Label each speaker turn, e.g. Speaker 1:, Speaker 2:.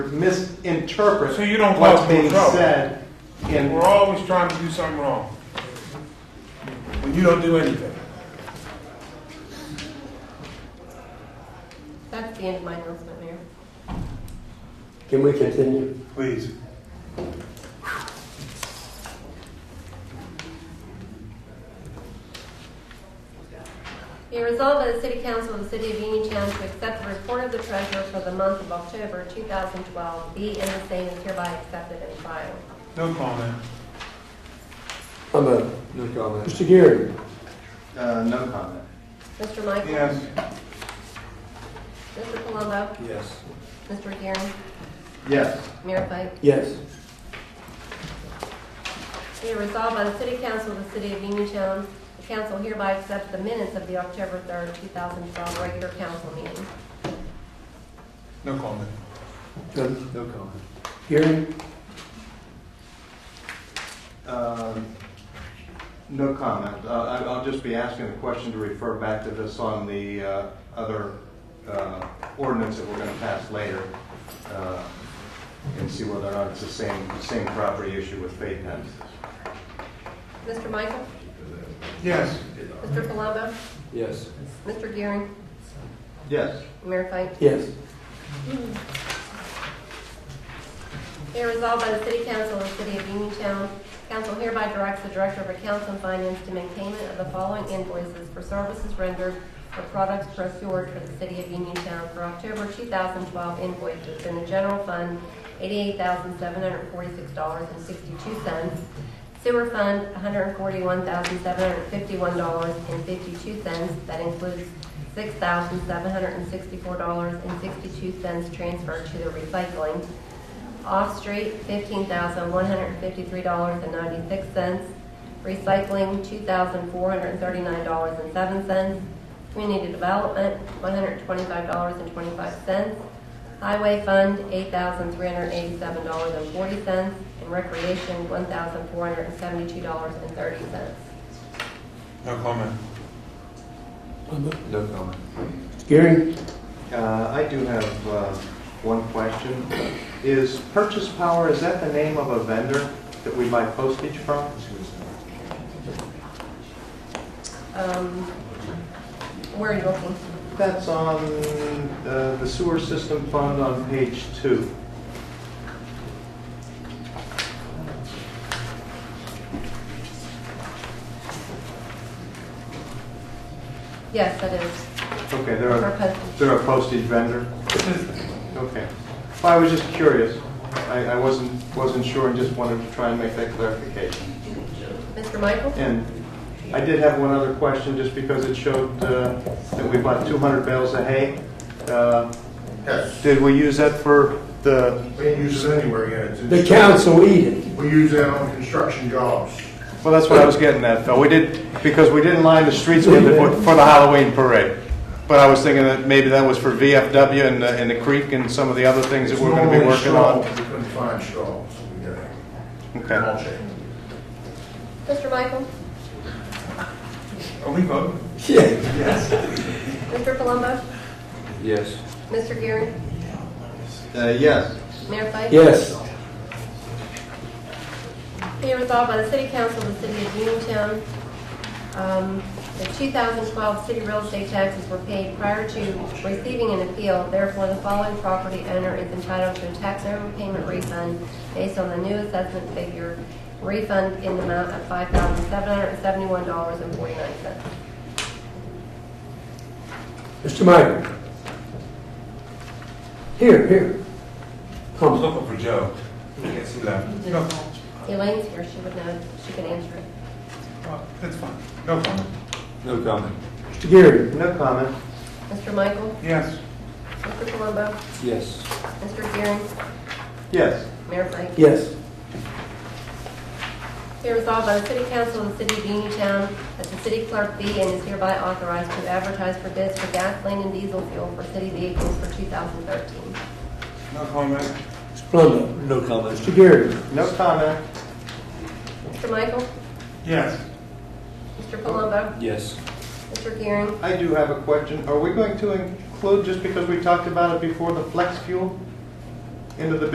Speaker 1: misinterpret
Speaker 2: So you don't
Speaker 1: what's
Speaker 2: cause more
Speaker 1: being
Speaker 2: trouble.
Speaker 1: said in
Speaker 2: We're always trying to do something wrong. When you don't do anything.
Speaker 3: That's the end of my announcement, Mayor.
Speaker 4: Can we continue?
Speaker 2: Please.
Speaker 3: Be it resolved by the City Council of the City of Uniontown to accept the report of the treasurer for the month of October 2012, be and the same is hereby accepted and filed.
Speaker 2: No comment.
Speaker 4: I'm a,
Speaker 5: No comment.
Speaker 4: Mr. Geary,
Speaker 5: Uh, no comment.
Speaker 3: Mr. Michael?
Speaker 2: Yes.
Speaker 3: Mr. Palumbo?
Speaker 5: Yes.
Speaker 3: Mr. Gearing?
Speaker 5: Yes.
Speaker 3: Mayor Pike?
Speaker 4: yes.
Speaker 3: Be it resolved by the City Council of the City of Uniontown, the council hereby accepts the minutes of the October 3rd, 2012 regular council meeting.
Speaker 2: No comment.
Speaker 4: Um,
Speaker 5: No comment.
Speaker 4: Geary,
Speaker 5: Um, no comment. Uh, I, I'll just be asking a question to refer back to this on the, uh, other, uh, ordinance that we're gonna pass later. uh, And see whether or not it's the same, same property issue with Faith Hens.
Speaker 3: Mr. Michael?
Speaker 2: Yes.
Speaker 3: Mr. Palumbo?
Speaker 4: yes.
Speaker 3: Mr. Gearing?
Speaker 5: Yes.
Speaker 3: Mayor Pike?
Speaker 4: Yes.
Speaker 3: Be resolved by the City Council of the City of Uniontown, council hereby directs the Director of Accounts and Finance to make payment of the following invoices for services rendered or products procured for the City of Uniontown for October 2012 invoices in the general fund, $88,746.62, sewer fund, $141,751.52. That includes $6,764.62 transferred to the recycling. Off-street, fifteen thousand one hundred fifty-three dollars and ninety-six cents. Recycling, two thousand four hundred thirty-nine dollars and seven cents. Community development, one hundred twenty-five dollars and twenty-five cents. Highway fund, eight thousand three hundred eighty-seven dollars and forty cents. And recreation, one thousand four hundred seventy-two dollars and thirty cents.
Speaker 2: No comment.
Speaker 5: No comment.
Speaker 4: Mr. Geary,
Speaker 5: Uh, I do have, uh, one question. Is Purchase Power, is that the name of a vendor that we buy postage from?
Speaker 3: Um, where are you looking?
Speaker 5: That's on uh, the sewer system fund on page two.
Speaker 3: Yes, that is,
Speaker 5: Okay, they're
Speaker 3: for
Speaker 5: a,
Speaker 3: postage.
Speaker 5: they're a postage vendor? Okay. Well, I was just curious. I, I wasn't, wasn't sure and just wanted to try and make that clarification.
Speaker 3: Mr. Michael?
Speaker 5: And I did have one other question, just because it showed uh, that we bought 200 bales of hay. Uh,
Speaker 6: Yes,
Speaker 5: Did we use that for the,
Speaker 6: we didn't use it anywhere yet. It's-
Speaker 4: the council eat it.
Speaker 6: We use that on construction jobs.
Speaker 5: well, that's what I was getting at, Phil. We did, because we didn't line the streets with it for for the Halloween parade. But I was thinking that maybe that was for VFW and, uh, and the creek and some of the other things that we're going to be
Speaker 6: Normally
Speaker 5: working
Speaker 6: straw,
Speaker 5: on.
Speaker 6: We couldn't find straw, so we got it.
Speaker 5: Okay.
Speaker 6: I'll check.
Speaker 3: Mr. Michael?
Speaker 2: Are we voting?
Speaker 4: Yeah.
Speaker 3: Mr. Palumbo?
Speaker 4: Yes.
Speaker 3: Mr. Gearing?
Speaker 5: Uh, yes.
Speaker 3: Mayor Pike?
Speaker 4: Yes.
Speaker 3: Be it resolved by the City Council of the City of Uniontown, um, the 2012 city real estate taxes were paid prior to receiving an appeal. Therefore, the following property owner is entitled to a tax overpayment refund based on the new assessment figure, refund in the amount of $5,771.49.
Speaker 4: Mr. Meyer. Here, here.
Speaker 2: I was
Speaker 4: Come.
Speaker 2: looking for Joe. Yes, he left. No,
Speaker 3: Elaine's here, she would know, she can answer it.
Speaker 2: uh, that's fine. No comment.
Speaker 5: No comment.
Speaker 4: Mr. Geary.
Speaker 5: No comment.
Speaker 3: Mr. Michael?
Speaker 2: Yes.
Speaker 3: Mr. Palumbo?
Speaker 4: Yes.
Speaker 3: Mr. Gearing?
Speaker 5: Yes.
Speaker 3: Mayor Pike?
Speaker 4: Yes.
Speaker 3: Be resolved by the City Council of the City of Uniontown that the city clerk be and is hereby authorized to advertise for bids for gasoline and diesel fuel for city vehicles for 2013.
Speaker 2: No comment.
Speaker 4: Mr. Plumbo. No comment. Mr. Geary.
Speaker 5: No comment.
Speaker 3: Mr. Michael?
Speaker 2: Yes.
Speaker 3: Mr. Palumbo?
Speaker 4: Yes.
Speaker 3: Mr. Gearing?
Speaker 5: I do have a question. Are we going to include, just because we talked about it before, the flex fuel? into the